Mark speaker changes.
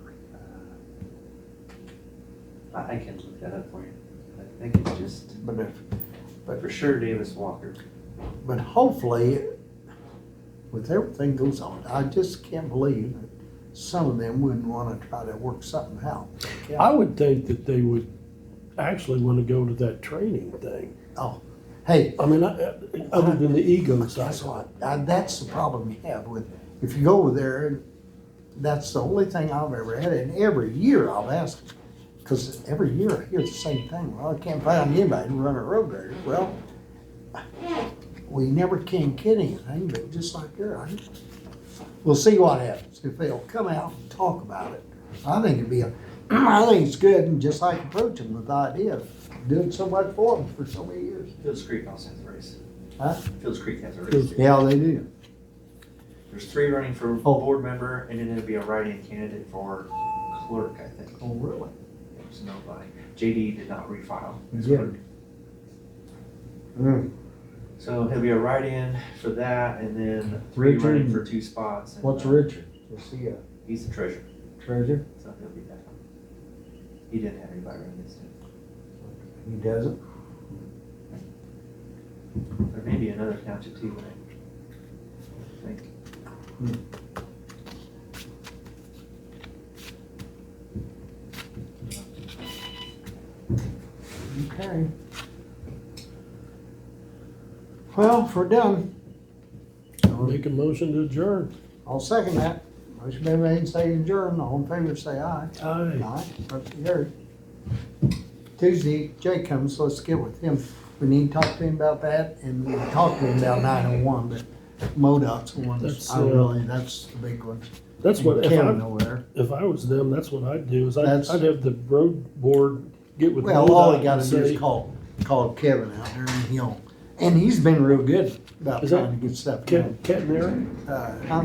Speaker 1: I I can look that up for you. I think it's just,
Speaker 2: But if,
Speaker 1: for sure Davis Walker.
Speaker 2: but hopefully, with everything goes on, I just can't believe that some of them wouldn't wanna try to work something out.
Speaker 3: I would think that they would actually want to go to that training thing.
Speaker 2: Oh, Hey,
Speaker 3: I mean, I, uh, other than the ego side.
Speaker 2: that's what, uh, that's the problem you have with, if you go over there, that's the only thing I've ever had, and every year I'll ask, cause every year I hear the same thing, well, I can't find anybody to run a road grader, well, we never can get anything, but just like you're, I, we'll see what happens, if they'll come out and talk about it, I think it'd be a, I think it's good, and just like approaching with the idea of doing so much for them for so many years,
Speaker 1: Fields Creek also has a race.
Speaker 2: Huh?
Speaker 1: Fields Creek has a race.
Speaker 2: yeah, they do.
Speaker 1: There's three running for
Speaker 2: Oh.
Speaker 1: board member, and then there'll be a write-in candidate for clerk, I think.
Speaker 2: Oh, really?
Speaker 1: There's nobody. JD did not refile. his
Speaker 2: Yeah.
Speaker 1: clerk.
Speaker 2: Hmm,
Speaker 1: So there'll be a write-in for that, and then three
Speaker 2: Richard.
Speaker 1: running for two spots. and,
Speaker 2: What's
Speaker 1: uh,
Speaker 2: Richard? Is he a
Speaker 1: He's the treasurer,
Speaker 2: treasure?
Speaker 1: so he'll be that. He didn't have anybody running against him.
Speaker 2: He doesn't.
Speaker 1: There may be another township too, but I think.
Speaker 2: Okay. Well, if we're done.
Speaker 3: Make a motion to adjourn.
Speaker 2: I'll second that. Motion been made, second adjourned. All in favor, say aye.
Speaker 3: Aye.
Speaker 2: Aye. Motion carried. Tuesday, Jay comes, let's get with him. We need to talk to him about that and we talked to him about nine oh one, but MoDOT's the one,
Speaker 3: That's,
Speaker 2: I
Speaker 3: uh,
Speaker 2: really, that's the big one.
Speaker 3: That's what, if
Speaker 2: Kevin
Speaker 3: I,
Speaker 2: over there.
Speaker 3: if I was them, that's what I'd do, is I'd,
Speaker 2: That's-
Speaker 3: I'd have the road board get with.
Speaker 2: Well, all
Speaker 3: MoDOT
Speaker 2: he gotta
Speaker 3: and
Speaker 2: do
Speaker 3: say-
Speaker 2: is call, call Kevin out there and he'll, and he's been real good about
Speaker 3: Is that
Speaker 2: trying to get stuff
Speaker 3: Cat,
Speaker 2: done.
Speaker 3: cat and Eric?
Speaker 2: Uh, huh?